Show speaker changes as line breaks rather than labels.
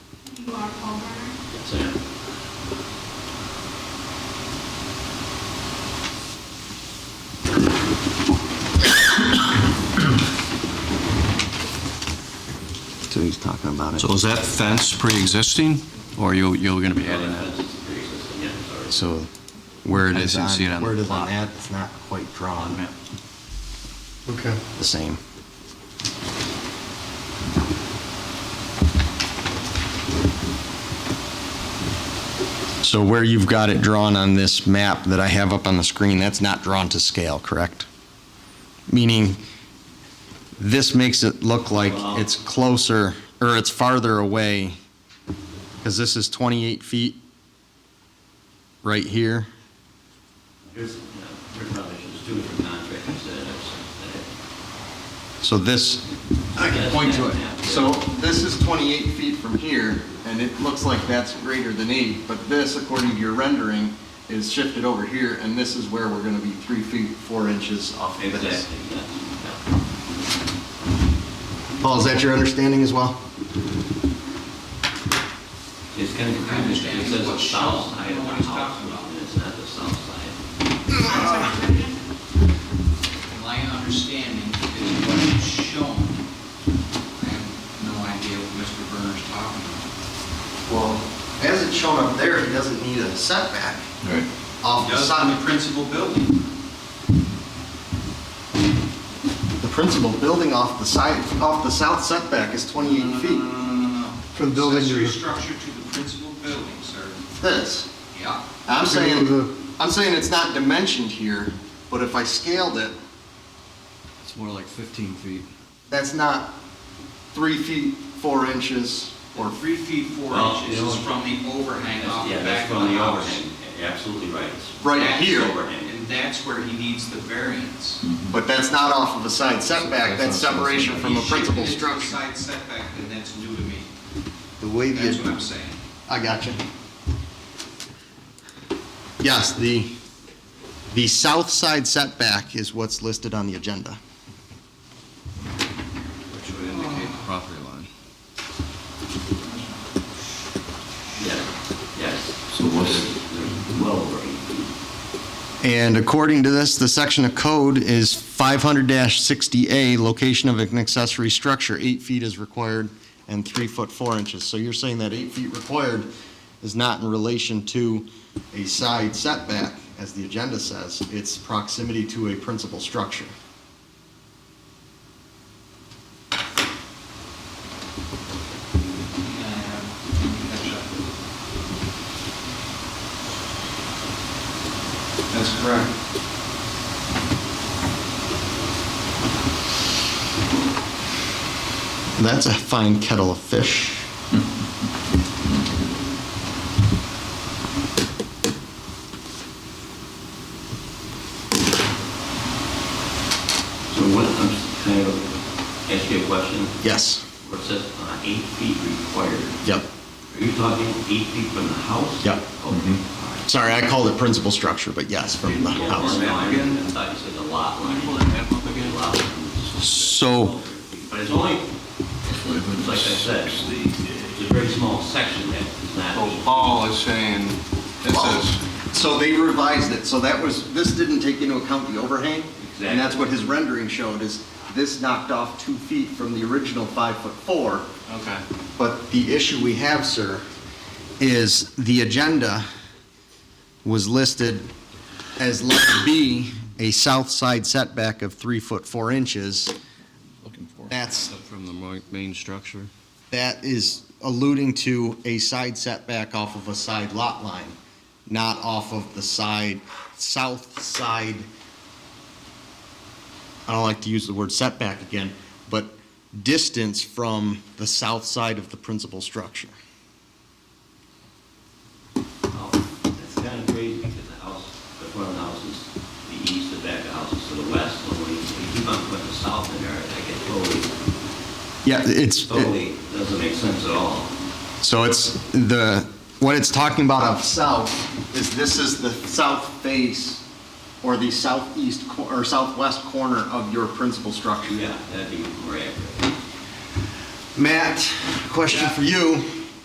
You are Palmer.
Yes, I am.
So he's talking about it.
So is that fence pre-existing, or you, you're gonna be adding that?
pre-existing, yeah, sorry.
So.
Where it is, you
Depends
see it on
Where it
the
is on
plot.
that, it's not quite
On the
drawn
map.
Okay.
the same. So where you've got it drawn on this map that I have up on the screen, that's not drawn to scale, correct? Meaning, this makes it look like it's closer, or it's farther away, because this is 28 feet right here.
Here's, no, here's another issue, there's two different contractors that have,
So this. I can point to it. So this is 28 feet from here, and it looks like that's greater than 80, but this, according to your rendering, is shifted over here, and this is where we're gonna be three feet, four inches off
that
of
have,
this.
exactly, yes. yeah.
Paul, is that your understanding as well?
It's kind of confusing, because it says the south side of the house, and it's not the south side.
My understanding is what is shown. I have no idea what Mr. Berner's talking about.
Well, as it's shown up there, he doesn't need a setback off
Does on the principal building.
The principal building off the side, off the south setback is 28
No,
feet.
no, no, no, no.
From the building to
Accessory
the-
structure to the principal building, sir.
This.
Yeah.
I'm
If you go to
saying,
the-
I'm saying it's not dimensioned here, but if I scaled it,
It's more like 15 feet.
that's not three feet, four inches,
Or
or,
three feet, four
Well,
inches
you know-
is from the overhang off the
Yeah,
back
that's
of
from
the
the
house.
overhang, absolutely right. It's
Right
that's
here.
overhang.
And that's where he needs the variance.
but that's not off of a side setback, that's separation from a
He shifted
principal
it to the
structure.
Side setback, then that's new to me.
The way
That's what I'm saying.
I got you. Yes, the, the south side setback is what's listed on the agenda.
Which would indicate the property line.
Yeah, yes.
So what's-
They're Well over eight feet.
And according to this, the section of code is 500-60A, location of an accessory structure, eight feet is required and three foot four inches. So you're saying that eight feet required is not in relation to a side setback, as the agenda says, it's proximity to a principal structure.
Yeah, yeah. That's correct.
That's a fine kettle of fish.
So what, I'm s- kind of, ask you a question,
Yes,
where it says uh, eight feet required,
yep,
are you talking eight feet from the house?
Yep.
Okay,
Mm-hmm.
all right.
sorry, I called it principal structure, but yes, from the
Yeah,
house.
no, I mean, I thought you said a lot line. Lot line.
So-
But it's only, it's like I said, it's a very small section that is not.
So Paul is saying, this is,
So they revised it, so that was, this didn't take into account the overhang? And that's what his rendering showed, is this knocked off two feet from the original five foot four.
okay.
But the issue we have, sir, is the agenda was listed as letter B, a south side setback of three foot four inches.
Looking for.
That's-
From the mo- main structure?
That is alluding to a side setback off of a side lot line, not off of the side, south side. I don't like to use the word setback again, but distance from the south side of the principal structure.
It's kind of crazy because the house, the front of the house is to the east, the back of the house is to the west. So when you you keep on putting the south in there, I get totally,
Yeah, it's,
totally, doesn't make sense at all.
so it's the, what it's talking about of south is this is the south face or the southeast cor- or southwest corner of your principal structure.
Yeah, that'd be more accurate.
Matt, question for you.